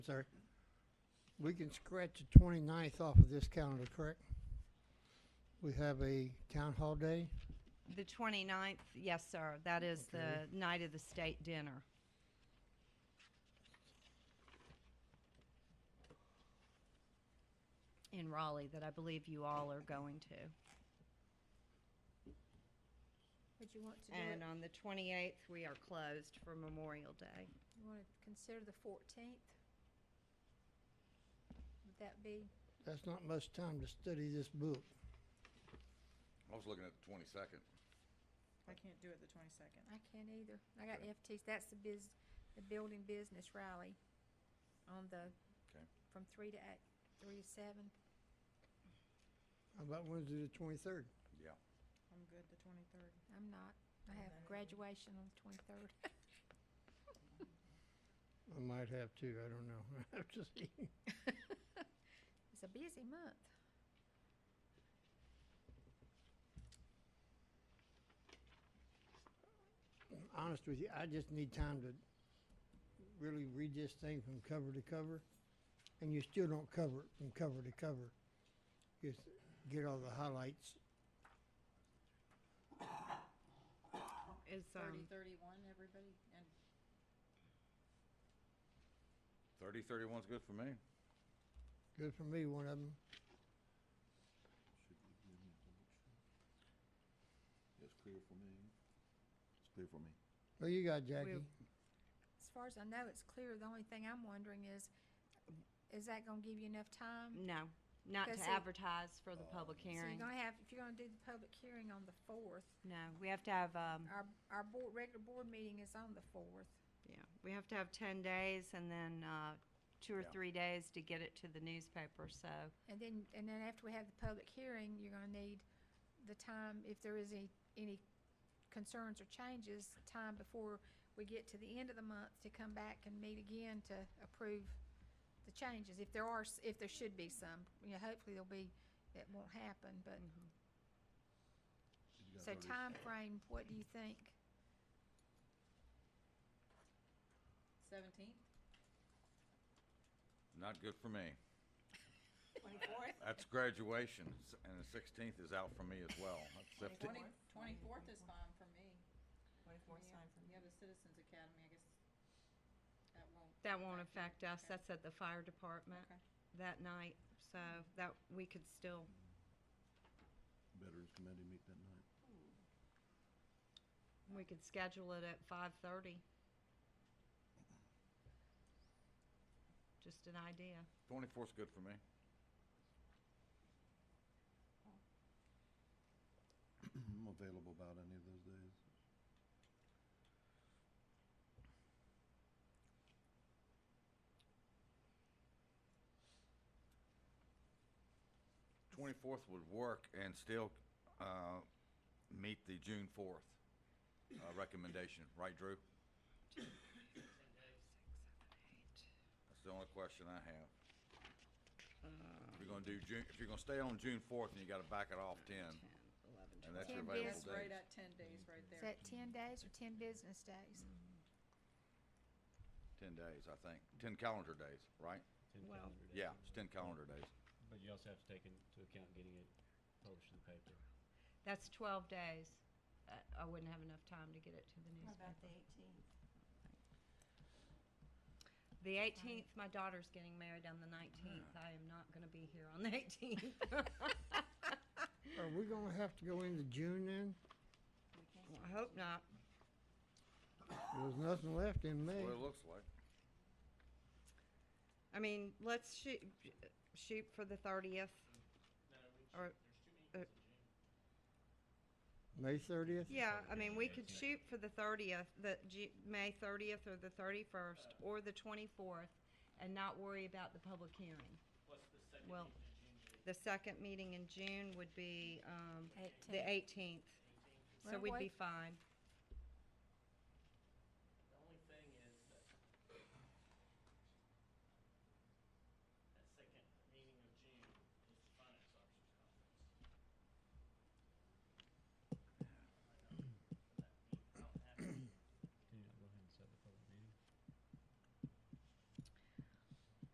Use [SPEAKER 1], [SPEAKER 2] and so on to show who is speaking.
[SPEAKER 1] Sorry. We can scratch the 29th off of this calendar, correct? We have a town hall day.
[SPEAKER 2] The 29th, yes, sir. That is
[SPEAKER 1] Okay.
[SPEAKER 2] the night of the state dinner. In Raleigh, that I believe you all are going to.
[SPEAKER 3] Would you want to do it,
[SPEAKER 2] And uh, on the 28th, we are closed for Memorial Day.
[SPEAKER 3] you want to consider the fourteenth? Would that be,
[SPEAKER 1] That's not much time to study this book.
[SPEAKER 4] I was looking at the twenty-second.
[SPEAKER 5] I can't do it the twenty-second.
[SPEAKER 3] I can't either. I got FTs, that's the biz, the building business rally on the,
[SPEAKER 4] Okay.
[SPEAKER 3] from three to eight, three to seven.
[SPEAKER 1] How about Wednesday the 23rd?
[SPEAKER 4] Yeah.
[SPEAKER 5] I'm good the twenty-third.
[SPEAKER 3] I'm not. I have
[SPEAKER 5] Okay.
[SPEAKER 3] graduation on the twenty-third.
[SPEAKER 1] I might have to, I don't know. I have to see.
[SPEAKER 3] It's a busy month.
[SPEAKER 1] Honest with you, I just need time to really read this thing from cover to cover. And you still don't cover it from cover to cover. Just get all the highlights.
[SPEAKER 2] Is,
[SPEAKER 6] thirty,
[SPEAKER 2] um,
[SPEAKER 6] thirty-one, everybody, and
[SPEAKER 4] Thirty, thirty-one's good for me.
[SPEAKER 1] Good for me, one of them.
[SPEAKER 7] It's clear for me. It's clear for me.
[SPEAKER 1] What you got, Jackie?
[SPEAKER 3] As far as I know, it's clear. The only thing I'm wondering is, is that gonna give you enough time?
[SPEAKER 2] no, not
[SPEAKER 3] Okay,
[SPEAKER 2] to
[SPEAKER 3] so-
[SPEAKER 2] advertise for the public
[SPEAKER 3] So
[SPEAKER 2] hearing.
[SPEAKER 3] you're gonna have, if you're gonna do the public hearing on the fourth,
[SPEAKER 2] No, we have to have, um,
[SPEAKER 3] our, our board, regular board meeting is on the fourth.
[SPEAKER 2] yeah, we have to have 10 days and then, uh, two or
[SPEAKER 4] Yeah.
[SPEAKER 2] three days to get it to the newspaper, so.
[SPEAKER 3] And then, and then after we have the public hearing, you're gonna need the time, if there is any, any concerns or changes, time before we get to the end of the month to come back and meet again to approve the changes, if there are, s- if there should be some. You know, hopefully there'll be, that won't happen, but, so time frame. what do you think?
[SPEAKER 6] seventeenth,
[SPEAKER 4] Not good for me.
[SPEAKER 6] twenty-fourth,
[SPEAKER 4] That's graduation, s- and the sixteenth is out for me as well. That's fifteen.
[SPEAKER 6] twenty, twenty-fourth is fine for me.
[SPEAKER 5] Twenty-fourth's
[SPEAKER 6] Yeah,
[SPEAKER 5] fine for
[SPEAKER 6] You
[SPEAKER 5] me.
[SPEAKER 6] have the Citizens Academy, I guess that won't,
[SPEAKER 2] That won't affect
[SPEAKER 6] Affect you,
[SPEAKER 2] us,
[SPEAKER 6] okay.
[SPEAKER 2] that's at the fire department
[SPEAKER 6] okay.
[SPEAKER 2] that night, so that, we could still,
[SPEAKER 7] Veterans Committee meet that night.
[SPEAKER 2] we could schedule it at five thirty. Just an idea.
[SPEAKER 4] Twenty-fourth's good for me.
[SPEAKER 7] I'm available about any of those days.
[SPEAKER 4] Twenty-fourth would work and still, uh, meet the June fourth, uh, recommendation, right, Drew? That's the only question I have. If you're gonna do June, if you're gonna stay on June fourth, then you gotta back it off ten, and that's your
[SPEAKER 3] Ten
[SPEAKER 4] available
[SPEAKER 3] days.
[SPEAKER 4] days.
[SPEAKER 6] That's right at ten days right
[SPEAKER 3] Is
[SPEAKER 6] there.
[SPEAKER 3] that ten days or ten business days?
[SPEAKER 4] Ten days, I think. Ten calendar days, right?
[SPEAKER 8] Ten
[SPEAKER 2] Well-
[SPEAKER 8] calendar days.
[SPEAKER 4] Yeah, it's ten calendar days.
[SPEAKER 8] But you also have to take into account getting it published in the paper.
[SPEAKER 2] That's twelve days, Uh, I wouldn't have enough time to get it to the newspaper.
[SPEAKER 6] eighteenth?
[SPEAKER 2] The eighteenth, my daughter's getting married on the nineteenth, I am not gonna be here on the eighteenth.
[SPEAKER 1] Are we gonna have to go into June then?
[SPEAKER 2] I hope not.
[SPEAKER 1] There's nothing left in May.
[SPEAKER 4] That's what it looks like.
[SPEAKER 2] I mean, let's shoot, shoot for the thirtieth. Or,
[SPEAKER 1] May thirtieth?
[SPEAKER 2] yeah, I mean, we could shoot for the thirtieth, the Ju- May thirtieth or the thirty-first or the twenty-fourth and not worry about the public hearing. Well, the second meeting in June would be, um, the eighteenth. So
[SPEAKER 3] Well,
[SPEAKER 2] we'd
[SPEAKER 3] what-
[SPEAKER 2] be fine.